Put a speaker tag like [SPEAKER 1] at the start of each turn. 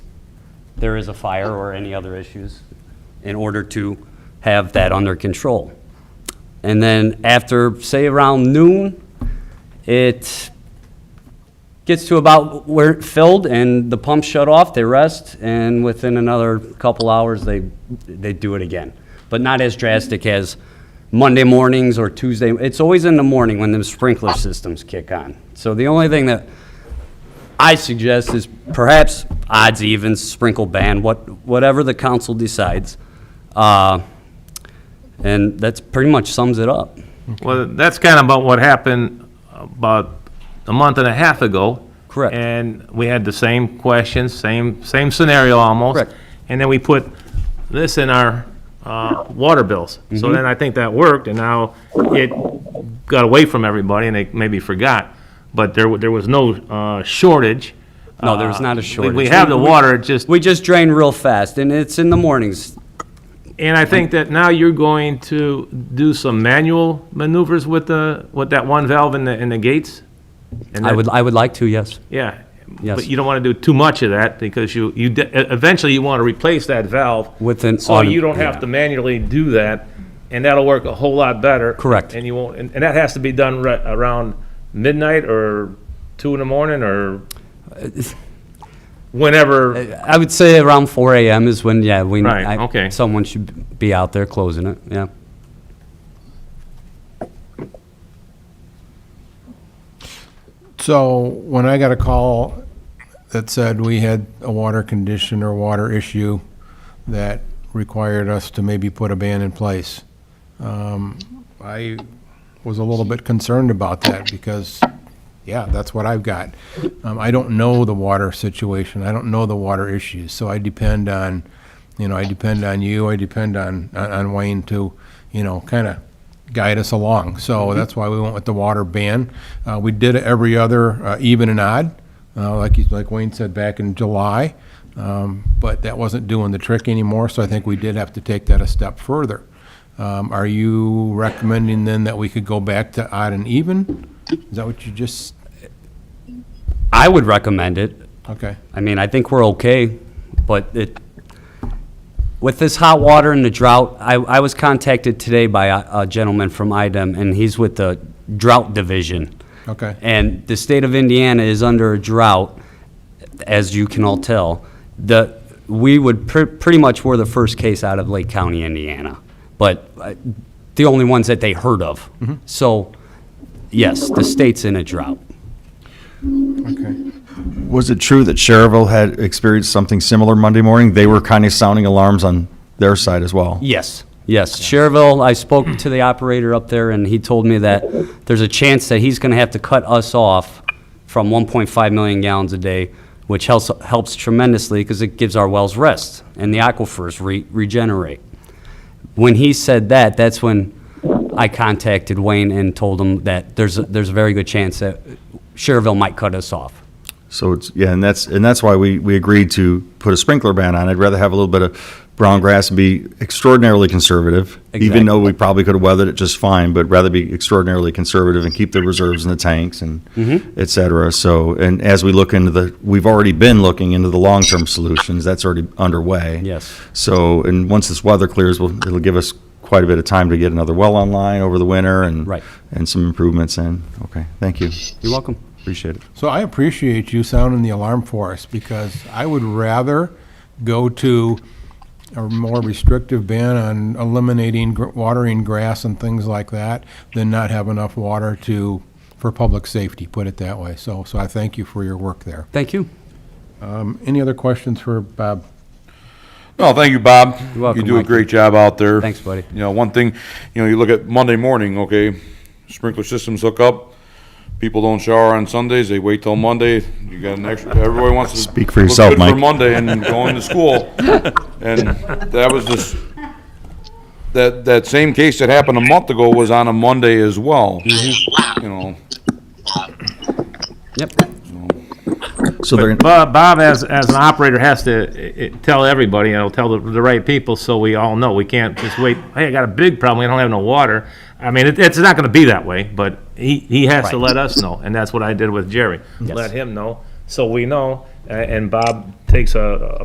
[SPEAKER 1] there is a fire or any other issues in order to have that under control. And then after, say around noon, it gets to about where it filled and the pumps shut off, they rest, and within another couple hours, they, they do it again. But not as drastic as Monday mornings or Tuesday. It's always in the morning when the sprinkler systems kick on. So the only thing that I suggest is perhaps odds, evens, sprinkle ban, what, whatever the council decides. Uh, And that's pretty much sums it up.
[SPEAKER 2] Well, that's kind of about what happened about a month and a half ago.
[SPEAKER 1] Correct.
[SPEAKER 2] And we had the same question, same, same scenario almost.
[SPEAKER 1] Correct.
[SPEAKER 2] And then we put this in our uh, water bills.
[SPEAKER 1] Mm-hmm.
[SPEAKER 2] So then I think that worked, and now it got away from everybody, and they maybe forgot. But there, wa- there was no uh, shortage.
[SPEAKER 1] No, there was not a
[SPEAKER 2] Uh, we-
[SPEAKER 1] shortage.
[SPEAKER 2] We have the water, it just,
[SPEAKER 1] We just drain real fast, and it's in the mornings.
[SPEAKER 2] and I think that now you're going to do some manual maneuvers with the, with that one valve in the, in the gates? And
[SPEAKER 1] I
[SPEAKER 2] that-
[SPEAKER 1] would, I would like to, yes.
[SPEAKER 2] Yeah.
[SPEAKER 1] Yes.
[SPEAKER 2] But you don't want to do too much of that because you, you, de- e- eventually you want to replace that valve.
[SPEAKER 1] With an
[SPEAKER 2] So
[SPEAKER 1] autom-
[SPEAKER 2] you don't have
[SPEAKER 1] yeah.
[SPEAKER 2] to manually do that, and that'll work a whole lot better.
[SPEAKER 1] Correct.
[SPEAKER 2] And you won't, and, and that has to be done right around midnight or two in the morning or
[SPEAKER 1] Uh,
[SPEAKER 2] whenever.
[SPEAKER 1] I would say around 4 AM is when, yeah, we.
[SPEAKER 2] Right,
[SPEAKER 1] I-
[SPEAKER 2] okay.
[SPEAKER 1] Someone should be out there closing it, yeah.
[SPEAKER 3] So when I got a call that said we had a water condition or water issue that required us to maybe put a ban in place, um, I was a little bit concerned about that because, yeah, that's what I've got. Um, I don't know the water situation. I don't know the water issues. So I depend on, you know, I depend on you. I depend on, on- on Wayne to, you know, kind of guide us along. So that's why we went with the water ban. Uh, we did it every other, uh, even and odd, uh, like you, like Wayne said back in July. Um, but that wasn't doing the trick anymore, so I think we did have to take that a step further. Um, are you recommending then that we could go back to odd and even? Is that what you just,
[SPEAKER 1] I would recommend it.
[SPEAKER 3] okay.
[SPEAKER 1] I mean, I think we're okay, but it, with this hot water and the drought, I, I was contacted today by a a gentleman from IDEM, and he's with the Drought Division.
[SPEAKER 3] Okay.
[SPEAKER 1] And the state of Indiana is under a drought, as you can all tell. The, we would, pre- pretty much were the first case out of Lake County, Indiana, but uh, the only ones that they heard of. So, yes, the state's in a drought.
[SPEAKER 3] Okay.
[SPEAKER 4] Was it true that Cherville had experienced something similar Monday morning? They were kind of sounding alarms on their side as well.
[SPEAKER 1] Yes, yes. Cherville, I spoke to the operator up there, and he told me that there's a chance that he's going to have to cut us off from 1.5 million gallons a day, which helps helps tremendously because it gives our wells rest and the aquifers re- regenerate. When he said that, that's when I contacted Wayne and told him that there's a, there's a very good chance that Cherville might cut us off.
[SPEAKER 4] So it's, yeah, and that's, and that's why we, we agreed to put a sprinkler ban on. I'd rather have a little bit of brown grass and be extraordinarily conservative, even though we probably could have weathered it just fine, but rather be extraordinarily conservative and keep the reserves in the tanks and
[SPEAKER 1] Mm-hmm.
[SPEAKER 4] et cetera. So, and as we look into the, we've already been looking into the long-term solutions. That's already underway.
[SPEAKER 1] Yes.
[SPEAKER 4] So, and once this weather clears, we'll, it'll give us quite a bit of time to get another well online over the winter and
[SPEAKER 1] Right.
[SPEAKER 4] and some improvements in. Okay, thank you.
[SPEAKER 1] You're welcome.
[SPEAKER 4] Appreciate it.
[SPEAKER 3] So I appreciate you sounding the alarm for us, because I would rather go to a more restrictive ban on eliminating gr- watering grass and things like that than not have enough water to, for public safety, put it that way. So, so I thank you for your work there.
[SPEAKER 1] Thank you.
[SPEAKER 3] Any other questions for Bob?
[SPEAKER 5] No, thank you, Bob.
[SPEAKER 1] You're welcome,
[SPEAKER 5] You do a
[SPEAKER 1] Mike.
[SPEAKER 5] great job out there.
[SPEAKER 1] Thanks, buddy.
[SPEAKER 5] You know, one thing, you know, you look at Monday morning, okay, sprinkler systems hook up. People don't shower on Sundays, they wait till Monday. You got an extra, everybody wants to.
[SPEAKER 4] Speak for
[SPEAKER 5] look
[SPEAKER 4] yourself,
[SPEAKER 5] good
[SPEAKER 4] Mike.
[SPEAKER 5] For Monday and going to school. And that was just, that, that same case that happened a month ago was on a Monday as well. You know,
[SPEAKER 1] Yep.
[SPEAKER 4] So they're
[SPEAKER 2] Bob, Bob as, as an operator has to eh, eh, tell everybody, you know, tell the, the right people so we all know. We can't just wait, hey, I got a big problem, we don't have no water. I mean, it, it's not gonna be that way, but he, he has to let us know, and that's what I did with Jerry. Let him know, so we know, a- and Bob takes a, a